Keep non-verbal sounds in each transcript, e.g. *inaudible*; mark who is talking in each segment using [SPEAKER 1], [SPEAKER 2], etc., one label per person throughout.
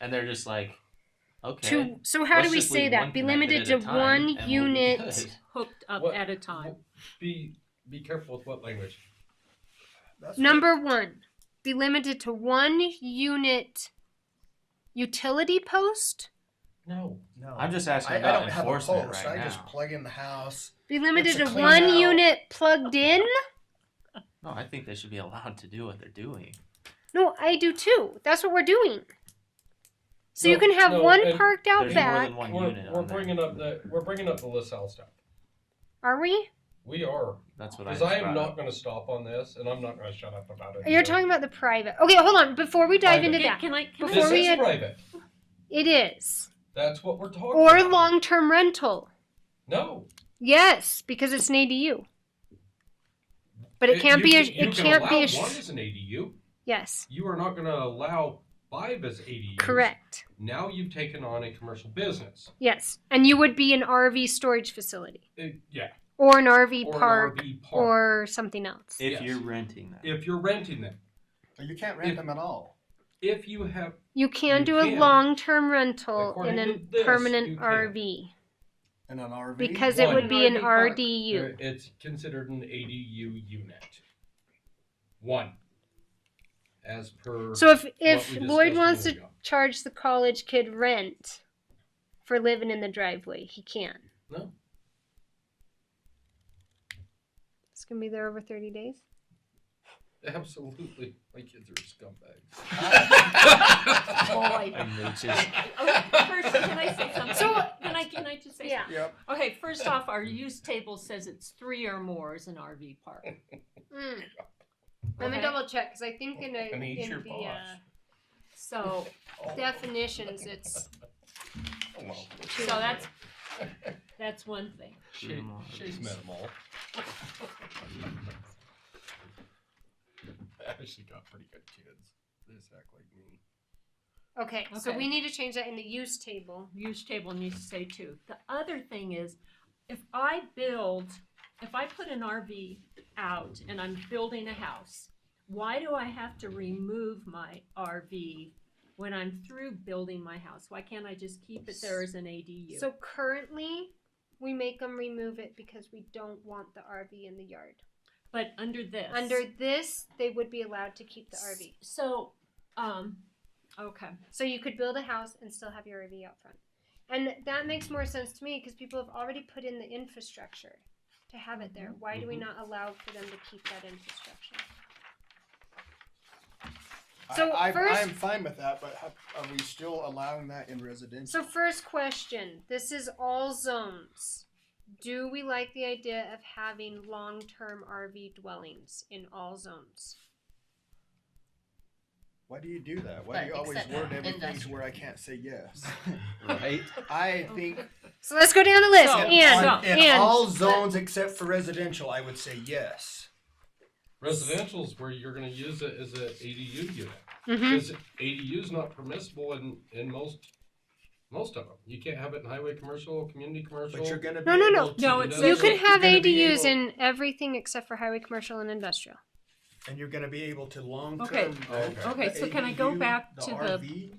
[SPEAKER 1] and they're just like, okay.
[SPEAKER 2] To so how
[SPEAKER 1] let's
[SPEAKER 2] do we
[SPEAKER 1] just
[SPEAKER 2] say
[SPEAKER 1] leave
[SPEAKER 2] that?
[SPEAKER 1] one
[SPEAKER 2] Be
[SPEAKER 1] connected
[SPEAKER 2] limited
[SPEAKER 1] at
[SPEAKER 2] to
[SPEAKER 1] a time,
[SPEAKER 2] one
[SPEAKER 1] and we'll be
[SPEAKER 2] unit.
[SPEAKER 1] good.
[SPEAKER 3] hooked up
[SPEAKER 4] What-
[SPEAKER 3] at a time.
[SPEAKER 4] Be be careful with what language.
[SPEAKER 2] *laughs*
[SPEAKER 5] That's
[SPEAKER 2] Number one, be limited to one unit. Utility post.
[SPEAKER 4] No.
[SPEAKER 5] No.
[SPEAKER 1] I'm just asking
[SPEAKER 5] I, I
[SPEAKER 1] about
[SPEAKER 5] don't have a post.
[SPEAKER 1] enforcement right
[SPEAKER 5] I just
[SPEAKER 1] now.
[SPEAKER 5] plug in the house.
[SPEAKER 2] Be limited
[SPEAKER 5] to
[SPEAKER 2] to
[SPEAKER 5] clean
[SPEAKER 2] one
[SPEAKER 5] out.
[SPEAKER 2] unit plugged in.
[SPEAKER 1] No, I think they should be allowed to do what they're doing.
[SPEAKER 2] No, I do too. That's what we're doing. So you
[SPEAKER 4] No,
[SPEAKER 2] can have
[SPEAKER 4] no,
[SPEAKER 2] one
[SPEAKER 4] and
[SPEAKER 2] parked out
[SPEAKER 1] There's more
[SPEAKER 2] back.
[SPEAKER 1] than one
[SPEAKER 4] We're,
[SPEAKER 1] unit.
[SPEAKER 4] we're
[SPEAKER 1] on there.
[SPEAKER 4] bringing up the we're bringing up the LaSalle stuff.
[SPEAKER 2] Are we?
[SPEAKER 4] We are
[SPEAKER 1] That's what I.
[SPEAKER 4] because
[SPEAKER 1] just
[SPEAKER 4] I am
[SPEAKER 1] brought
[SPEAKER 4] not
[SPEAKER 1] up.
[SPEAKER 4] going to stop on this, and I'm not going to shut up about it.
[SPEAKER 2] You're talking about the private. Okay, hold on. Before we dive
[SPEAKER 4] Private.
[SPEAKER 2] into
[SPEAKER 3] Can,
[SPEAKER 2] that,
[SPEAKER 3] can I? Can
[SPEAKER 2] Before
[SPEAKER 4] this
[SPEAKER 3] I,
[SPEAKER 2] we
[SPEAKER 4] is
[SPEAKER 2] had-
[SPEAKER 4] private.
[SPEAKER 2] it is
[SPEAKER 4] That's what we're talking.
[SPEAKER 2] or
[SPEAKER 4] about.
[SPEAKER 2] long-term rental.
[SPEAKER 4] No,
[SPEAKER 2] Yes, because it's an ADU. But it can't
[SPEAKER 4] you
[SPEAKER 2] be a.
[SPEAKER 4] can- you
[SPEAKER 2] It
[SPEAKER 4] can
[SPEAKER 2] can't be
[SPEAKER 4] allow
[SPEAKER 2] a. sh-
[SPEAKER 4] One is an ADU.
[SPEAKER 2] Yes,
[SPEAKER 4] You are not going to allow five as ADUs.
[SPEAKER 2] correct.
[SPEAKER 4] Now you've taken on a commercial business.
[SPEAKER 2] Yes, and you would be an RV storage facility
[SPEAKER 4] It- yeah.
[SPEAKER 2] or an RV
[SPEAKER 4] Or an
[SPEAKER 2] park
[SPEAKER 4] RV park.
[SPEAKER 2] or something else.
[SPEAKER 1] If
[SPEAKER 4] Yes.
[SPEAKER 1] you're renting them.
[SPEAKER 4] if you're renting them.
[SPEAKER 5] You can't rent
[SPEAKER 4] If-
[SPEAKER 5] them at all.
[SPEAKER 4] If you have
[SPEAKER 2] you can
[SPEAKER 4] you
[SPEAKER 2] do a
[SPEAKER 4] can.
[SPEAKER 2] long-term rental in
[SPEAKER 4] According
[SPEAKER 2] a
[SPEAKER 4] to this, you
[SPEAKER 2] permanent
[SPEAKER 4] can.
[SPEAKER 2] RV
[SPEAKER 5] In an RV.
[SPEAKER 2] because it
[SPEAKER 4] One.
[SPEAKER 2] would be an
[SPEAKER 3] RV park.
[SPEAKER 2] RDU.
[SPEAKER 4] uh, It's considered an ADU unit. One. As per.
[SPEAKER 2] So if
[SPEAKER 4] we
[SPEAKER 2] if
[SPEAKER 4] discussed
[SPEAKER 2] Lloyd wants
[SPEAKER 4] a
[SPEAKER 2] to
[SPEAKER 4] minute ago.
[SPEAKER 2] charge the college kid rent for living in the driveway, he can.
[SPEAKER 4] no,
[SPEAKER 2] It's gonna be there over thirty days.
[SPEAKER 4] absolutely, my kids are *laughs* scumbags.
[SPEAKER 3] boy.
[SPEAKER 1] And
[SPEAKER 4] *laughs*
[SPEAKER 1] it's just-
[SPEAKER 3] Okay, first, can I say something?
[SPEAKER 2] So-
[SPEAKER 3] can I? Can I just say?
[SPEAKER 2] Yeah.
[SPEAKER 5] Yep.
[SPEAKER 3] Something? Okay, first off, our use table says it's three or more is an RV park.
[SPEAKER 2] Mm. Let me
[SPEAKER 3] Okay.
[SPEAKER 2] double check because I think in, a,
[SPEAKER 4] And he's
[SPEAKER 2] in
[SPEAKER 4] your
[SPEAKER 2] the
[SPEAKER 4] boss.
[SPEAKER 2] uh,
[SPEAKER 3] So,
[SPEAKER 2] definitions it's
[SPEAKER 3] so that's that's one thing.
[SPEAKER 4] She, she's met them *laughs* all. I actually got pretty good kids. They just act like me.
[SPEAKER 2] okay, So
[SPEAKER 3] Okay.
[SPEAKER 2] we need to change that in the use table.
[SPEAKER 3] Use table needs to say two. The other thing is, if I build, if I put an RV out and I'm building a house, why do I have to remove my RV when I'm through building my house? Why can't I just keep it there as an ADU?
[SPEAKER 2] So currently, we make them remove it because we don't want the RV in the yard.
[SPEAKER 3] but under this,
[SPEAKER 2] Under this, they would be allowed to keep the RV.
[SPEAKER 3] So, um, okay.
[SPEAKER 2] So you could build a house and still have your RV out front. And that makes more sense to me because people have already put in the infrastructure to have it there. Why do we not allow for them to keep that infrastructure? So
[SPEAKER 5] I, I,
[SPEAKER 2] first-
[SPEAKER 5] I am fine with that, but have, are we still allowing that in residential?
[SPEAKER 2] So, first question this is all zones. Do we like the idea of having long term RV dwellings in all zones?
[SPEAKER 5] Why do you do that? Why
[SPEAKER 6] But
[SPEAKER 5] do you always
[SPEAKER 6] except
[SPEAKER 5] word everything to
[SPEAKER 6] industrial.
[SPEAKER 5] where I can't say yes?
[SPEAKER 1] Right?
[SPEAKER 5] I think
[SPEAKER 2] So, let's go down the list.
[SPEAKER 3] So-
[SPEAKER 2] and,
[SPEAKER 5] on- in
[SPEAKER 2] and,
[SPEAKER 5] all zones except for residential, I would say yes.
[SPEAKER 4] Residential's where you're going to use it as an ADU unit.
[SPEAKER 2] Mhm.
[SPEAKER 4] Because ADU is not permissible in, in most, most of them. You can't have it in highway commercial, community commercial.
[SPEAKER 5] But you're gonna be
[SPEAKER 2] No, no, no.
[SPEAKER 4] able to
[SPEAKER 3] No,
[SPEAKER 4] do
[SPEAKER 3] it's-
[SPEAKER 4] that.
[SPEAKER 2] you
[SPEAKER 3] You're
[SPEAKER 2] could have
[SPEAKER 5] gonna be
[SPEAKER 2] ADUs
[SPEAKER 5] able-
[SPEAKER 2] in everything except for highway, commercial, and industrial.
[SPEAKER 5] and you're gonna be able to long term.
[SPEAKER 3] Okay.
[SPEAKER 1] Oh,
[SPEAKER 3] Okay, so can I go back to the
[SPEAKER 5] RV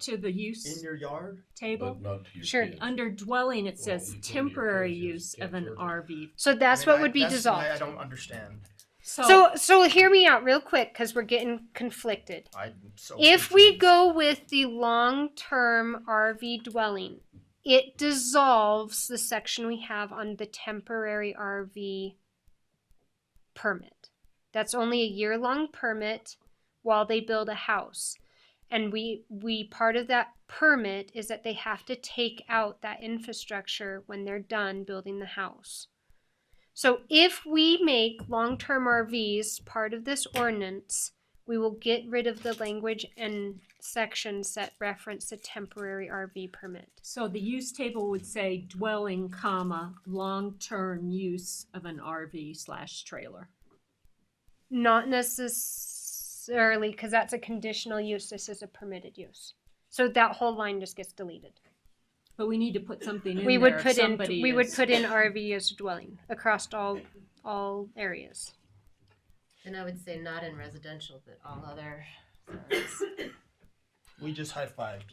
[SPEAKER 3] To the use
[SPEAKER 5] in your yard?
[SPEAKER 3] table.
[SPEAKER 4] But not to your
[SPEAKER 2] Sure.
[SPEAKER 4] kids.
[SPEAKER 3] Under dwelling, it
[SPEAKER 4] Well,
[SPEAKER 3] says
[SPEAKER 4] you can't
[SPEAKER 3] temporary use
[SPEAKER 4] use-
[SPEAKER 3] of an
[SPEAKER 4] can't charge
[SPEAKER 3] RV.
[SPEAKER 2] So,
[SPEAKER 5] I
[SPEAKER 2] that's
[SPEAKER 5] mean,
[SPEAKER 2] what
[SPEAKER 5] I-
[SPEAKER 2] would be
[SPEAKER 5] that's the way
[SPEAKER 2] dissolved.
[SPEAKER 5] I don't understand.
[SPEAKER 2] So, so hear me out real quick because we're getting conflicted.
[SPEAKER 5] I am so.
[SPEAKER 2] If we
[SPEAKER 5] confused.
[SPEAKER 2] go with the long term RV dwelling, it dissolves the section we have on the temporary RV permit. That's only a year long permit while they build a house. And we, we, part of that permit is that they have to take out that infrastructure when they're done building the house. So if we make long term RVs part of this ordinance, we will get rid of the language and sections that reference the temporary RV permit.
[SPEAKER 3] So the use table would say dwelling, comma, long-term use of an RV slash trailer.
[SPEAKER 2] Not necessarily, because that's a conditional use, this is a permitted use. So that whole line just gets deleted.
[SPEAKER 3] But we need to put something in
[SPEAKER 2] We
[SPEAKER 3] there
[SPEAKER 2] would
[SPEAKER 3] if
[SPEAKER 2] put in,
[SPEAKER 3] somebody
[SPEAKER 2] we would
[SPEAKER 3] is-
[SPEAKER 2] put in RV as a dwelling across all, all areas.
[SPEAKER 6] And I would say not in residential, but all other zones.
[SPEAKER 5] we just high fived.